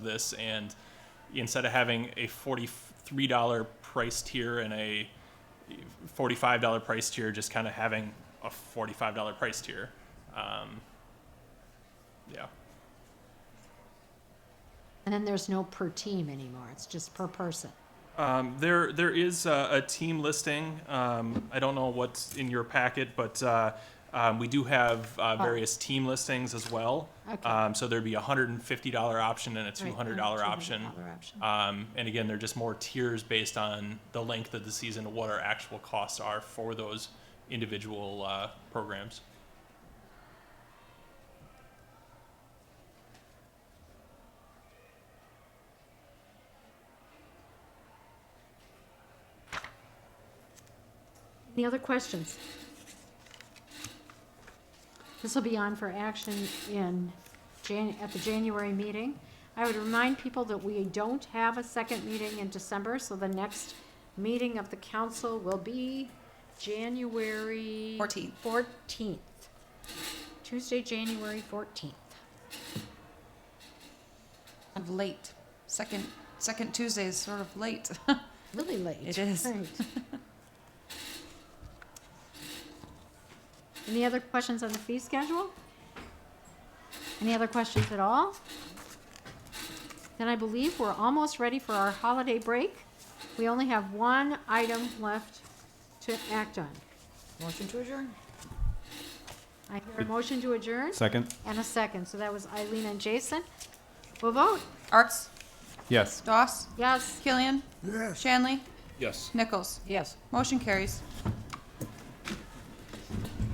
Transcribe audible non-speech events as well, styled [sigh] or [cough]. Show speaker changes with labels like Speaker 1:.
Speaker 1: this and instead of having a $43 price tier and a $45 price tier just kind of having a $45 price tier um, yeah
Speaker 2: And then there's no per team anymore, it's just per person.
Speaker 1: um, there there is a, a team listing um, i don't know what's in your packet but uh, um, we do have uh, various team listings as well
Speaker 2: Oh. Okay.
Speaker 1: um, so there'd be a $150 option and a
Speaker 2: Right,
Speaker 1: $200
Speaker 2: $200
Speaker 1: option
Speaker 2: option.
Speaker 1: Um, and again, they're just more tiers based on the length of the season and what our actual costs are for those individual uh, programs.
Speaker 2: Any other questions? This will be on for action in Jan, at the January meeting. I would remind people that we don't have a second meeting in December, so the next meeting of the council will be January.
Speaker 3: 14th.
Speaker 2: Fourteenth. Tuesday, January fourteenth.
Speaker 3: Kind of late. Second second Tuesday is sort of late. [laughs]
Speaker 2: Really late.
Speaker 3: It is.
Speaker 2: Right. [laughs] Any other questions on the fee schedule? Any other questions at all? Then I believe we're almost ready for our holiday break. We only have one item left to act on.
Speaker 3: Motion to adjourn.
Speaker 2: I hear a motion to adjourn
Speaker 4: Second?
Speaker 2: and a second. So that was Eileen and Jason. We'll vote.
Speaker 3: Arts,
Speaker 4: Yes.
Speaker 3: Doss,
Speaker 2: Yes.
Speaker 3: Killian, Shanley,
Speaker 5: Yes.
Speaker 3: Nichols.
Speaker 2: Yes.
Speaker 3: Motion carries.